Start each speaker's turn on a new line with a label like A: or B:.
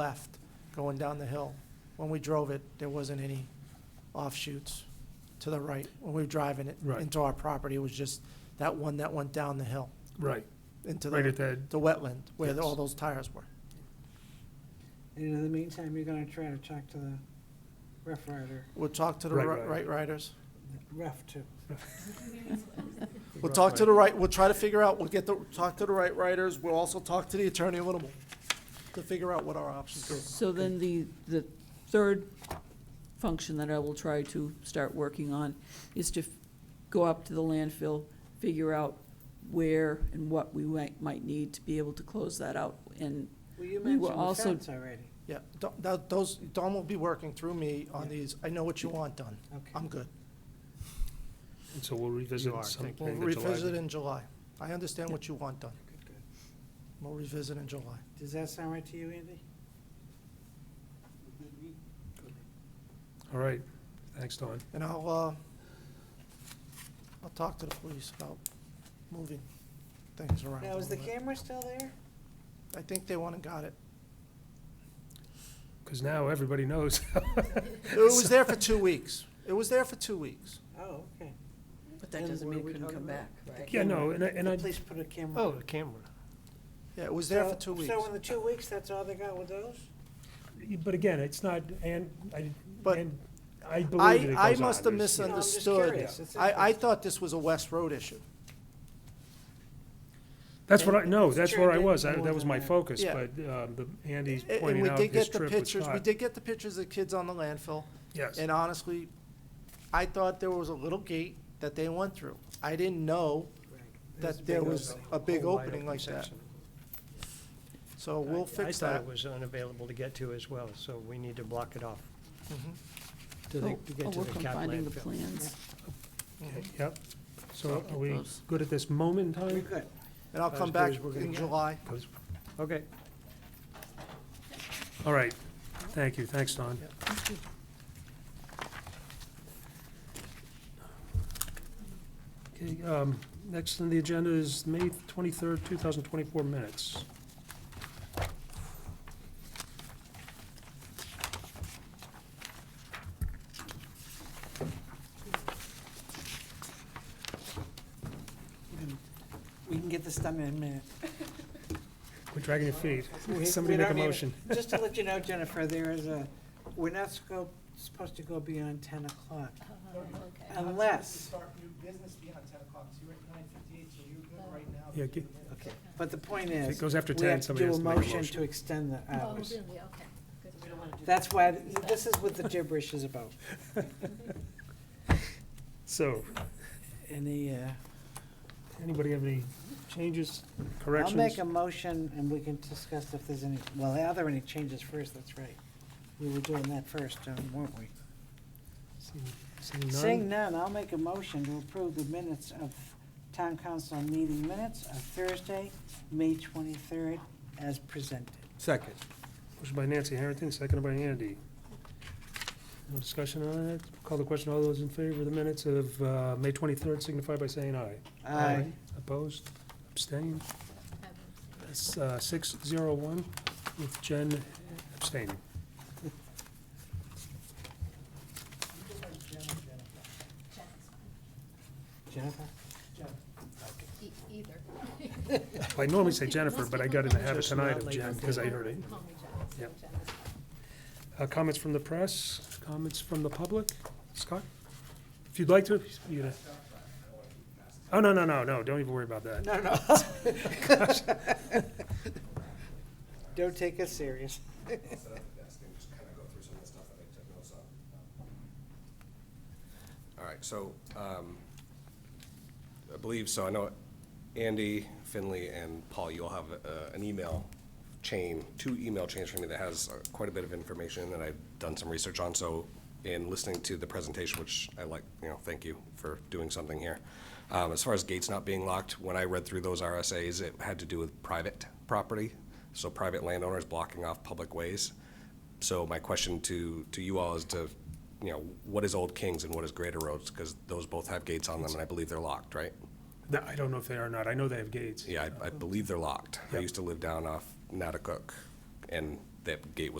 A: left going down the hill. When we drove it, there wasn't any offshoots to the right. When we were driving it
B: Right.
A: into our property, it was just that one that went down the hill
B: Right,
A: into
B: right
A: the,
B: at that,
A: the wetland where the-
B: Yes.
A: all those tires were.
C: And in the meantime, you're gonna try to talk to the ref rider,
A: We'll talk to the
B: Right
A: ri-
B: rider.
A: right riders.
C: ref too.
A: We'll talk to the right, we'll try to figure out, we'll get the, talk to the right riders. We'll also talk to the attorney a little more to figure out what our options are.
D: So then the, the third function that I will try to start working on is to f- go up to the landfill, figure out where and what we might, might need to be able to close that out. And,
C: Well, you
D: were
C: mentioned the
D: also-
C: fence already,
A: Yeah, Don- that, those, Don will be working through me on
C: Yeah.
A: these. I know what you want done.
C: okay.
A: I'm good.
B: and so we'll revisit
A: You are.
B: something
A: We'll
B: in the July.
A: revisit in July. I understand what you want done.
C: Good, good.
A: We'll revisit in July.
C: Does that sound right to you, Andy?
B: All right, thanks, Don.
A: And I'll, uh, I'll talk to the police about moving things around a
C: Now, is the
A: little bit.
C: camera still there?
A: I think they went and got it.
B: Because now everybody knows.
A: It was there for two weeks. It was there for two weeks.
C: Oh, okay.
E: But
C: And
E: that doesn't
C: what
E: mean
C: are we
E: it couldn't
C: talking
E: come
C: about?
E: back, right?
B: Yeah, no, and I, and
C: The
B: I,
C: police put a camera.
B: oh,
C: up.
B: the camera.
A: Yeah, it was there for
C: So-
A: two weeks.
C: So in the two weeks, that's all they got with those?
B: But again, it's not, and, I,
A: But
B: and I believe that it
A: I, I
B: goes on.
A: must have
B: There's-
C: No, I'm just
A: misunderstood.
C: curious. It's
A: I, I
C: interesting.
A: thought this was a West Road issue.
B: That's what I, no,
C: It's
B: that's where I
C: turned
B: was,
C: into
B: I-
C: more
B: that was
C: than
B: my
C: that.
B: focus,
A: Yeah.
B: but, um, the, Andy's
A: A- And
B: pointing
A: we
B: out
A: did
B: his
A: get the
B: trip was
A: pictures, we
B: not.
A: did get the pictures of the kids on the landfill.
B: Yes,
A: And honestly, I thought there was a little gate that they went through. I didn't know
C: There's a
A: that there
C: big
A: was
C: opening.
A: a big
F: whole wide
A: opening
F: open
A: like that.
F: section.
A: So we'll
F: I-
A: fix
F: I
A: that.
F: thought it was unavailable to get to as well, so we need to block it off
A: Mhm,
F: to the, to
D: I'll
F: get to the
D: Oh, work on
F: cap
D: finding the
F: landfill.
D: plans.
A: mhm.
B: Okay, yep. So
D: Get
B: are we
D: those.
B: good at this moment in
C: We're
B: time?
C: good.
A: And I'll
F: As
A: come
F: good
A: back
F: as we're gonna
A: in
F: get.
A: July.
B: 'Cause-
F: Okay.
B: All right, thank you, thanks, Don.
A: Yep.
B: Okay, um, next on the agenda is May twenty-third, two thousand twenty-four minutes.
C: We can get this done in a minute.
B: We're dragging your feet.
C: We-
B: Somebody
C: we
B: make a
C: don't even-
B: motion.
C: Just to let you know, Jennifer, there is a, we're not sco- supposed to go beyond ten o'clock unless,
B: Yeah, get-
C: okay, but the point
B: If
C: is,
B: it goes after
C: we
B: ten,
C: have to
B: somebody
C: do
B: has
C: a
B: to make a
C: motion
B: motion.
C: to extend the
E: Oh,
C: hours.
E: really, okay.
C: That's why, this is what the gibberish is about.
B: So,
C: Any, uh,
B: anybody have any changes,
C: I'll make
B: corrections?
C: a motion and we can discuss if there's any, well, are there any changes first? That's right. We were doing that first, um, weren't we?
B: Seeing- seeing none?
C: Seeing none, I'll make a motion to approve the minutes of town council meeting minutes of Thursday, May twenty-third, as presented.
F: Second.
B: Motion by Nancy Harrington, seconded by Andy. No discussion on it? Call the question. All those in favor of the minutes of uh, May 23rd signify by saying aye.
C: Aye.
B: Opposed? Abstained? That's, uh, 601 with Jen abstaining.
C: Jennifer?
E: Either.
B: Well, I normally say Jennifer, but I got in the habit tonight of Jen because I heard it.
E: Call me Jack, so
B: Yep.
E: Jack.
B: Uh, Comments from the press? Comments from the public? Scott? If you'd like to, you know. Oh, no, no, no, no, don't even worry about that.
C: No, no. Don't take us serious.
G: All right, so, um, I believe, so I know Andy, Finley, and Paul, you all have, uh, an email chain, two email chains for me that has uh, quite a bit of information that I've done some research on, so in listening to the presentation, which I like, you know, thank you for doing something here. Um, as far as gates not being locked, when I read through those RSAs, it had to do with private property, so private landowners blocking off public ways. So my question to, to you all is to, you know, what is Old Kings and what is Greater Roads? Because those both have gates on them, and I believe they're locked, right?
B: No, I don't know if they are or not. I know they have gates.
G: Yeah, I, I believe they're locked. I
B: Yep.
G: used to live down off Natticook, and that gate was